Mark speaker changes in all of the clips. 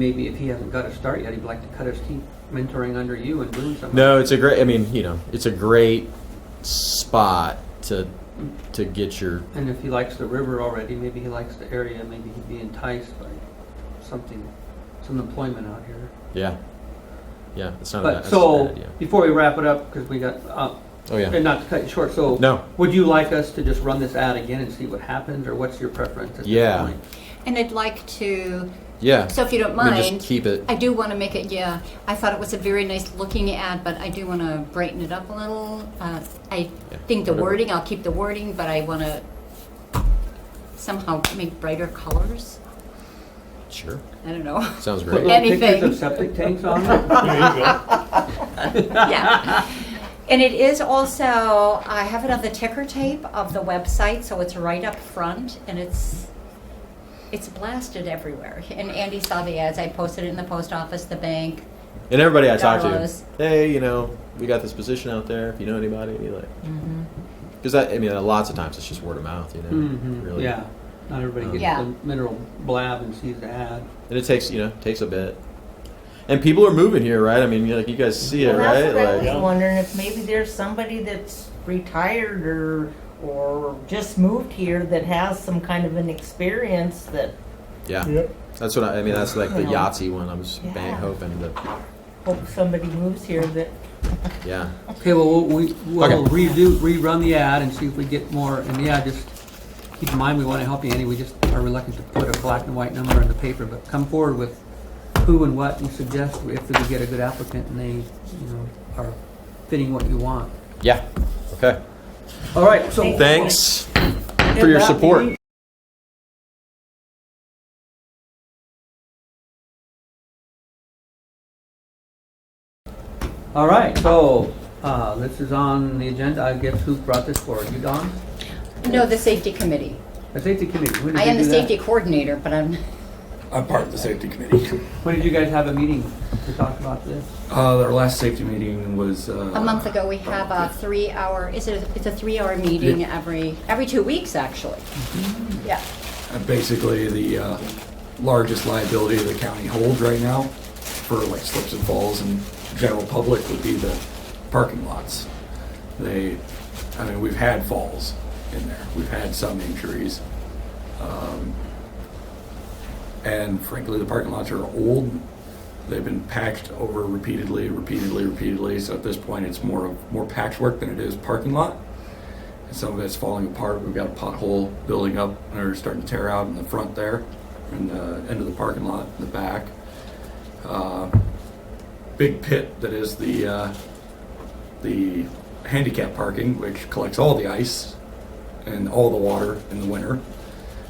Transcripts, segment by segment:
Speaker 1: Maybe if he hasn't got a start yet, he'd like to cut his teeth mentoring under you and doing something.
Speaker 2: No, it's a great. I mean, you know, it's a great spot to to get your.
Speaker 1: And if he likes the river already, maybe he likes the area, maybe he'd be enticed by something, some employment out here.
Speaker 2: Yeah, yeah. It's not. a bad,
Speaker 1: But
Speaker 2: it's not a
Speaker 1: so,
Speaker 2: bad idea.
Speaker 1: before we wrap it up, because we got, uh,
Speaker 2: Oh yeah.
Speaker 1: and not to cut you short, so.
Speaker 2: No.
Speaker 1: Would you like us to just run this ad again and see what happens, or what's your preference at this
Speaker 2: Yeah.
Speaker 1: point?
Speaker 3: And I'd like to,
Speaker 2: Yeah.
Speaker 3: so if you don't
Speaker 2: I mean, just
Speaker 3: mind,
Speaker 2: keep it.
Speaker 3: I do want to make it, yeah, I thought it was a very nice looking ad, but I do want to brighten it up a little. Uh, I
Speaker 2: Yeah,
Speaker 3: think the
Speaker 2: whatever.
Speaker 3: wording, I'll keep the wording, but I want to somehow make brighter colors.
Speaker 2: Sure.
Speaker 3: I don't know.
Speaker 2: Sounds
Speaker 1: Put
Speaker 2: great.
Speaker 1: little pictures
Speaker 3: Anything.
Speaker 1: of septic tanks on it?
Speaker 4: There you go.
Speaker 3: yeah. And it is also, I have it on the ticker tape of the website, so it's right up front, and it's it's blasted everywhere. And Andy saw the ads. I posted it in the post office, the bank.
Speaker 2: And everybody I talk to,
Speaker 3: Dollars.
Speaker 2: hey, you know, we got this position out there. If you know anybody, like, because I, I mean, lots of times it's just word of mouth, you know,
Speaker 1: Mhm,
Speaker 2: really.
Speaker 1: Yeah, not everybody gets
Speaker 3: Yeah.
Speaker 1: the mineral blab and sees the ad.
Speaker 2: And it takes, you know, takes a bit. And people are moving here, right? I mean, like you guys see it,
Speaker 5: Well, that's
Speaker 2: right?
Speaker 5: what I was
Speaker 2: Like,
Speaker 4: Yeah.
Speaker 5: wondering if maybe there's somebody that's retired or or just moved here that has some kind of an experience that
Speaker 2: yeah.
Speaker 4: Yep.
Speaker 2: That's what I, I mean. That's like the
Speaker 5: Yeah.
Speaker 2: Yahtzee one. I was bang
Speaker 5: Yeah.
Speaker 2: hoping that,
Speaker 5: hope somebody moves here that
Speaker 2: yeah,
Speaker 1: Okay, well, we, we'll
Speaker 2: Okay.
Speaker 1: redo, rerun the ad and see if we get more, and yeah, just keep in mind, we wanna help you, Andy, we just are reluctant to put a black and white number in the paper, but come forward with who and what and suggest if we get a good applicant and they, you know, are fitting what you want.
Speaker 2: yeah. Okay.
Speaker 1: All right, so.
Speaker 2: Thanks for your support.
Speaker 1: All right, so, uh, this is on the agenda, I guess who brought this forward, you, Don?
Speaker 3: No, the safety committee.
Speaker 1: The safety committee, when
Speaker 3: I
Speaker 1: did
Speaker 3: am
Speaker 1: you
Speaker 3: the
Speaker 1: do that?
Speaker 3: safety coordinator, but I'm
Speaker 6: I'm part of the safety committee.
Speaker 1: When did you guys have a meeting to talk about this?
Speaker 6: Uh, our last safety meeting was uh,
Speaker 1: Oh.
Speaker 3: a month ago. We have a three-hour. Is it? It's a three-hour meeting every every two weeks, actually.
Speaker 1: Mm-hmm.
Speaker 3: Yeah.
Speaker 6: Basically, the uh, largest liability the county holds right now for like slips and falls and general public would be the parking lots. They, I mean, we've had falls in there. We've had some injuries. Um, And frankly, the parking lots are old. They've been patched over repeatedly, repeatedly, repeatedly. So at this point, it's more of more patchwork than it is parking lot. And some of it's falling apart. We've got a pothole building up or starting to tear out in the front there, in the end of the parking lot, in the back. Uh, big pit that is the uh, the handicap parking, which collects all the ice and all the water in the winter.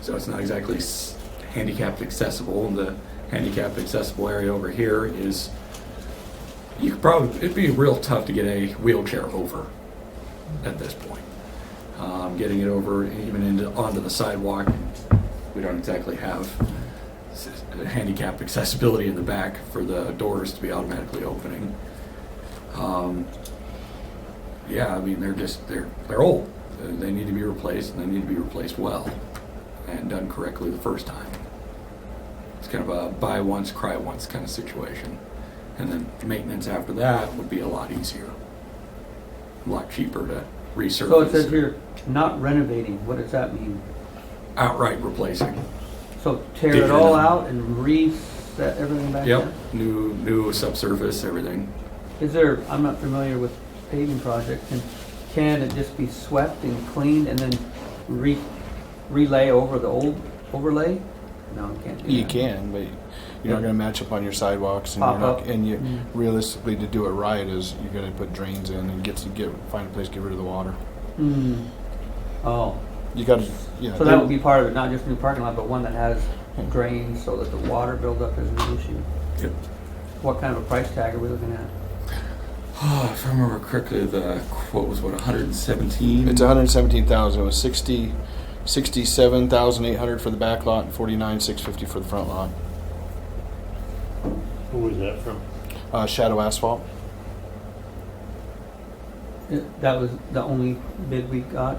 Speaker 6: So it's not exactly s- handicapped accessible. And the handicapped accessible area over here is you could probably it'd be real tough to get a wheelchair over at this point. Um, getting it over even into onto the sidewalk, we don't exactly have s- handicap accessibility in the back for the doors to be automatically opening. Um, yeah, I mean they're just they're they're old. They- They need to be replaced, and they need to be replaced well and done correctly the first time. It's kind of a buy once, cry once kind of situation, and then maintenance after that would be a lot easier, a lot cheaper to resurface.
Speaker 1: So it says here, not renovating, what does that mean?
Speaker 6: outright replacing.
Speaker 1: So tear
Speaker 6: Did
Speaker 1: it
Speaker 6: you
Speaker 1: all
Speaker 6: know?
Speaker 1: out and reset everything back
Speaker 6: Yep,
Speaker 1: down?
Speaker 6: new new subsurface, everything.
Speaker 1: Is there, I'm not familiar with paving projects, and can it just be swept and cleaned and then re, relay over the old overlay? No, it can't do
Speaker 7: You
Speaker 1: that.
Speaker 7: can, but you're not going to match up on your sidewalks, and
Speaker 1: Pop
Speaker 7: you're not,
Speaker 1: up.
Speaker 7: and you
Speaker 1: Mm.
Speaker 7: realistically to do it right is you're going to put drains in and get to get find a place to get rid of the water.
Speaker 1: Hmm. Oh,
Speaker 7: You got to, yeah.
Speaker 1: so that would be part of it, not just new parking lot, but one that has drains so that the water buildup is an issue.
Speaker 6: Yep.
Speaker 1: What kind of a price tag are we looking at?
Speaker 6: Oh, if I remember correctly, the quote was what 117.
Speaker 7: It's 117,000. It was 60, 67,800 for the back lot and 49,650 for the front lot.
Speaker 4: Who was that from?
Speaker 7: Uh, shadow asphalt.
Speaker 1: It- That was the only bid we got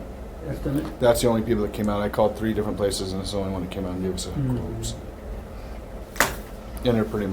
Speaker 1: estimate?
Speaker 7: That's the only people that came out. I called three different places, and it's the only one that came out and gave us a
Speaker 1: Mm.
Speaker 7: quote. And they're pretty much